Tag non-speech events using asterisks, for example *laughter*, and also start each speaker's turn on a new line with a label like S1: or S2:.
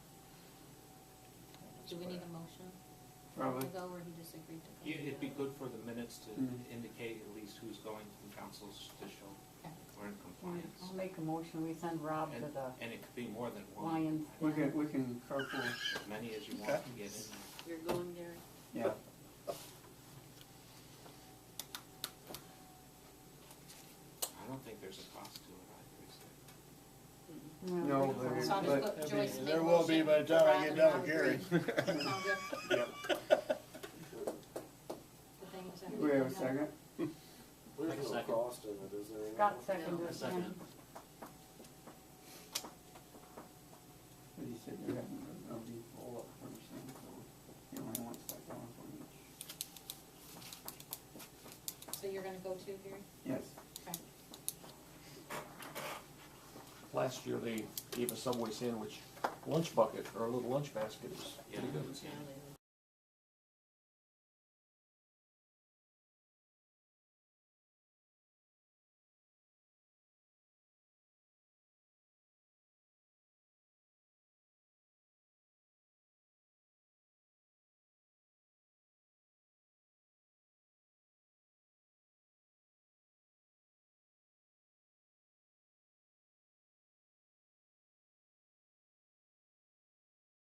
S1: Do we need a motion?
S2: Probably.
S1: To go where he just agreed to go?
S3: Yeah, It'd be good for the minutes to
S4: Mm-hmm.
S2: Mhm.
S3: indicate at least who's going to the councils to show
S1: Okay.
S3: we're in
S5: I'll
S3: compliance.
S5: make a motion, we send Rob to
S3: And,
S5: the,
S3: and it could be more than one,
S5: Lions.
S2: We can, we can carpool,
S3: as many as you want to get in.
S1: You're going there.
S2: yeah.
S3: I don't think there's a cost to it, I think so.
S2: No,
S5: that's
S1: So I'll
S5: fine.
S2: But-
S1: just put Joyce make
S6: There will be
S1: motion
S6: by the time I
S1: for
S6: get
S1: Rob
S6: done with
S1: and Rob
S6: Gary. *laughs*
S1: agree. *laughs* Sound good? The thing is that
S2: We have a second?
S7: There's
S8: Like a
S7: no
S8: second.
S7: cost in it, is there? any?
S5: Scott seconded
S8: A
S5: it,
S8: second.
S5: yeah.
S2: But he said there hadn't been, no, he pulled up for something, so he only wants like one from each.
S1: So you're gonna go to Gary?
S2: Yes,
S1: Okay.
S4: Last year, they gave a Subway sandwich lunch bucket, or a little lunch basket, it was
S3: Yeah,
S4: pretty good.
S3: yeah.